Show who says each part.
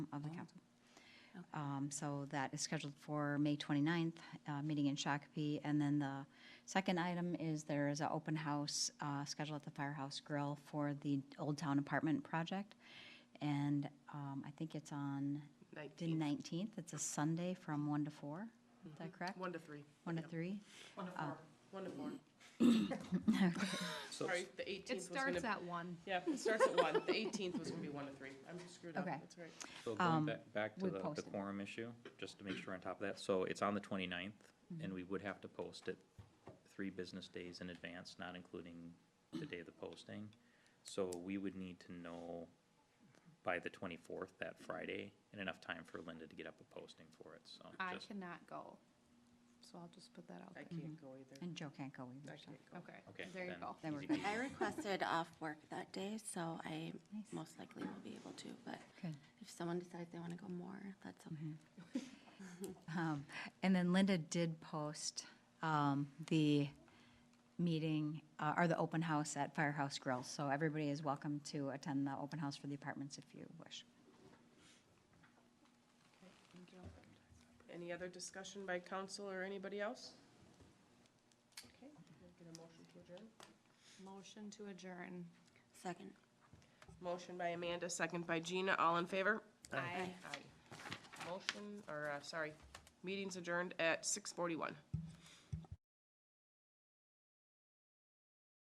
Speaker 1: Um, So that is scheduled for May 29th, uh, meeting in Shakopee. And then the second item is there is an open house uh, scheduled at the Firehouse Grill for the Old Town Apartment Project. And um, I think it's on the
Speaker 2: 19,
Speaker 1: 19th. It's a Sunday from 1 to 4. Is that correct?
Speaker 2: 1 to 3.
Speaker 1: 1 to 3?
Speaker 2: 1
Speaker 3: Oh.
Speaker 2: to 4. 1 to 4.
Speaker 4: So,
Speaker 2: Sorry, the 18th
Speaker 3: It
Speaker 2: was going
Speaker 3: starts
Speaker 2: to,
Speaker 3: at one.
Speaker 2: yeah, it starts at 1. The 18th was going to be 1 to 3. I'm screwed up,
Speaker 1: Okay.
Speaker 2: that's right.
Speaker 4: so
Speaker 1: um,
Speaker 4: going back, back to
Speaker 1: we
Speaker 4: the- the
Speaker 1: posted.
Speaker 4: quorum issue, just to make sure we're on top of that, so it's on the 29th,
Speaker 1: Mm-hmm.
Speaker 4: and we would have to post it three business days in advance, not including the day of the posting. So we would need to know by the twenty-fourth, that Friday, and enough time for Linda to get up a posting for it, so.
Speaker 3: I
Speaker 4: just-
Speaker 3: cannot go, so I'll just put that out
Speaker 2: I
Speaker 3: there.
Speaker 2: can't go either.
Speaker 1: And Joe can't go
Speaker 2: I
Speaker 1: either. so-
Speaker 2: can't go.
Speaker 4: Okay.
Speaker 3: Okay, there you
Speaker 4: then
Speaker 3: go.
Speaker 1: Then we're
Speaker 4: easy
Speaker 1: good.
Speaker 4: peasy.
Speaker 5: I requested off work that day, so I
Speaker 1: Nice.
Speaker 5: most likely will be able to, but
Speaker 1: Good.
Speaker 5: if someone decides they want to go more, that's okay.
Speaker 1: Um, And then Linda did post um, the meeting, uh, or the open house at Firehouse Grill. So everybody is welcome to attend the open house for the apartments if you wish.
Speaker 2: Any other discussion by council or anybody else? Okay, can I get a motion to adjourn?
Speaker 3: Motion to adjourn.
Speaker 5: Second.
Speaker 2: Motion by Amanda, second by Gina, all in favor?
Speaker 3: Aye.
Speaker 2: Aye. Motion, or, uh, sorry, meeting's adjourned at 6:41.